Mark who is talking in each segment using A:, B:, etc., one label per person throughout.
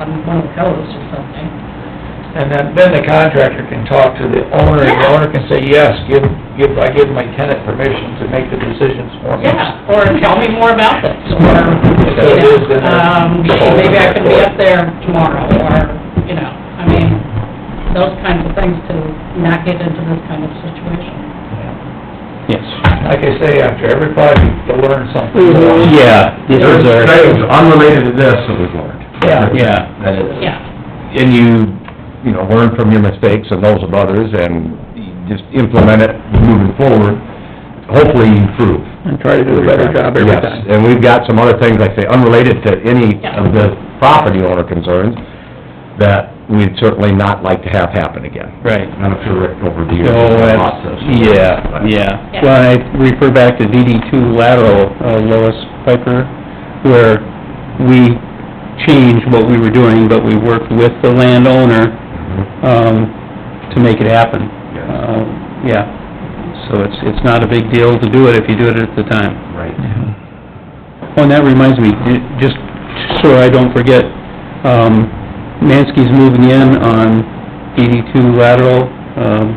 A: on one of those or something.
B: And then, then the contractor can talk to the owner, and the owner can say, yes, give, give, I give my tenant permission to make the decisions for me.
A: Yeah, or tell me more about this, or,
B: If it is,
A: you know,
B: then
A: um,
B: it's-
A: maybe I can be up there tomorrow, or, you know, I mean, those kinds of things to not get into this kind of situation.
C: Yes.
B: Like I say, after every project, you'll learn something.
D: Mm-hmm.
C: Yeah, this is
E: There's
C: our,
E: things unrelated to this that we've learned.
B: Yeah.
C: yeah,
E: That is.
A: Yeah,
C: and you, you know, learn from your mistakes and those of others, and you just implement it moving forward, hopefully you improve.
B: And try to do a better job every
C: Yes,
B: time.
C: And we've got some other things, like I say, unrelated to any
A: Yeah.
C: of the property owner concerns, that we'd certainly not like to have happen again. Oh,
D: Right.
E: And I'm sure Rick over the years.
D: So
E: has
D: that's,
E: lots of-
D: yeah,
A: Yeah.
D: yeah. Well, I refer back to DD two lateral, uh, Lois Piper, where we changed what we were doing, but we worked with the landowner,
E: Mm-hmm,
D: um, to make it happen.
E: Yes.
D: Uh, Yeah, so it's, it's not a big deal to do it if you do it at the time.
E: Right.
D: Oh, and that reminds me, ju- just so I don't forget, um, Mansky's moving in on eighty-two lateral, um,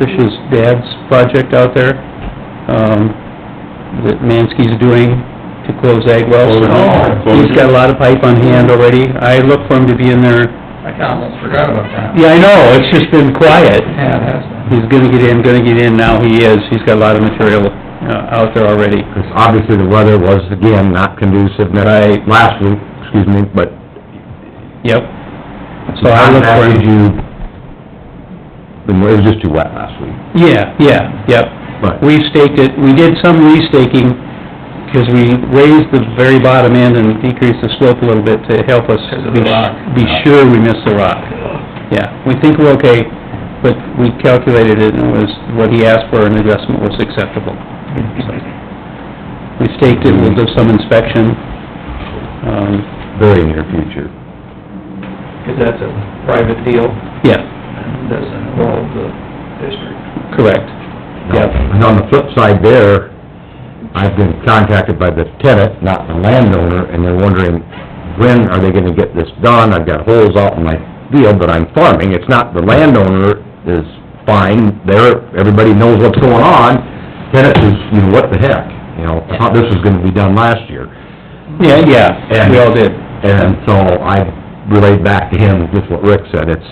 D: Trish's dad's project out there, um, that Mansky's doing to close ag wells.
B: Oh.
D: He's got a lot of pipe on hand already. I look for him to be in there.
B: I almost forgot about that.
D: Yeah, I know, it's just been quiet.
B: Yeah, that's,
D: He's gonna get in, gonna get in, now he is. He's got a lot of material, uh, out there already.
C: Because obviously the weather was, again, not conducive,
D: Right.
C: last week, excuse me, but
D: Yep. So I look for him.
C: contacted you, the- it was just too wet last week,
D: Yeah, yeah, yep.
C: but...
D: We staked it, we did some restaking, because we raised the very bottom end and decreased the slope a little bit to help us
B: Because of the
D: be
B: rock.
D: be sure we missed the rock. Yeah, we think we're okay, but we calculated it, and it was, what he asked for, an adjustment was acceptable. So, We staked it, we'll do some inspection. Um,
C: very near future.
B: because that's a private deal,
D: yeah,
B: and doesn't involve the district.
D: correct. Yep.
C: And on the flip side there, I've been contacted by the tenant, not the landowner, and they're wondering, when are they gonna get this done? I've got holes out in my field that I'm farming, it's not, the landowner is fine, there, everybody knows what's going on, tenant is, you know, what the heck? You know, I thought this was gonna be done last year.
D: Yeah, yeah, we all did.
C: And so I relayed back to him just what Rick said, it's,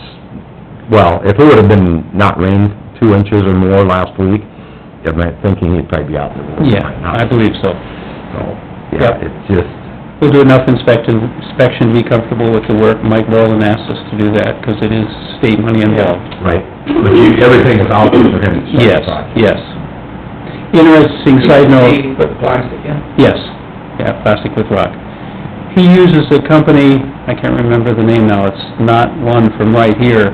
C: well, if it would've been not rained two inches or more last week, I'm not thinking he'd probably be out there.
D: Yeah, I believe so.
C: So,
D: Yep.
C: yeah, it's just,
D: We'll do enough inspection, inspection, be comfortable with the work. Mike Rowland asked us to do that, because it is state money involved.
C: right, but you, everything is out there for him to
D: Yes,
C: certify.
D: yes. Interesting side note,
B: Put the plastic in.
D: yes, yeah, plastic with rock. He uses a company, I can't remember the name now, it's not one from right here,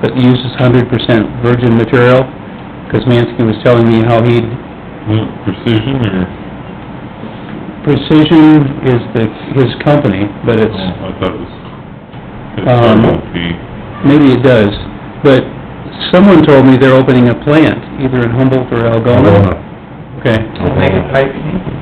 D: but uses hundred percent virgin material, because Mansky was telling me how he'd
E: Precision or?
D: Precision is the, his company, but it's,
C: Mm-hmm.
E: I thought it was.
D: Um, maybe it does, but someone told me they're opening a plant, either in Humboldt or Algona. Okay,
B: We'll make it tight.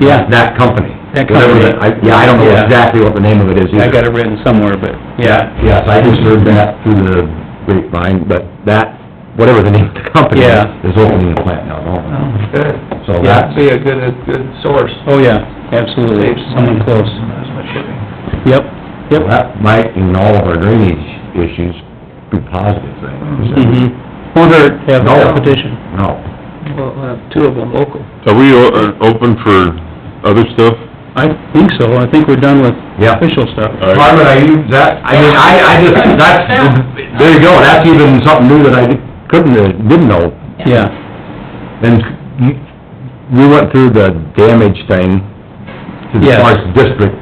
D: yeah,
C: Oh, That company.
D: That
C: Whatever
D: company.
C: the- I- Yeah, I don't know
D: Yeah.
C: exactly what the name of it is either.
D: I got it written somewhere, but, yeah,
C: Yes, I just heard that through the grapevine, but that, whatever the name of the company is,
D: Yeah.
C: is opening a plant now, oh.
B: Oh, Good.
C: So
D: Yeah.
B: That'd
C: that's,
B: be a good, a good source.
D: oh, yeah, absolutely,
B: Saves money.
D: someone close.
B: That's my shipping.
D: Yep, yep.
C: that might, in all of our drainage issues, be positive thing.
D: Mhm. Won't hurt, to have
C: No.
D: a petition.
C: No.
B: Well, we'll have two of them local.
F: Are we o- uh, open for other stuff?
D: I think so, I think we're done with
C: Yeah.
D: official stuff.
F: All
C: Why
F: right.
C: would I use that? I mean, I, I just, that's, there you go, that's even something new that I couldn't, uh, didn't know.
D: Yeah,
C: And you- we went through the damage thing to the
D: Yes.
C: parks district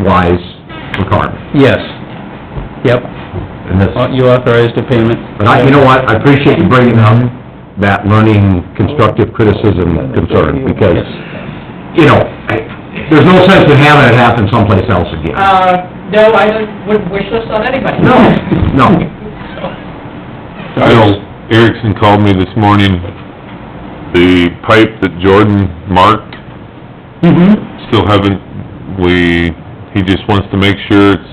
C: wise requirement,
D: yes, yep,
C: and this...
D: Uh, you authorized a payment.
C: But I, you know what, I appreciate you bringing up that learning constructive criticism concern, because,
D: Yes.
C: you know, I- there's no sense in having it happen someplace else again.
A: uh, no, I wouldn't wish this on anybody.
C: No, no.
F: I know Erickson called me this morning, the pipe that Jordan marked,
D: Mm-hmm.
F: still haven't, we, he just wants to make sure it's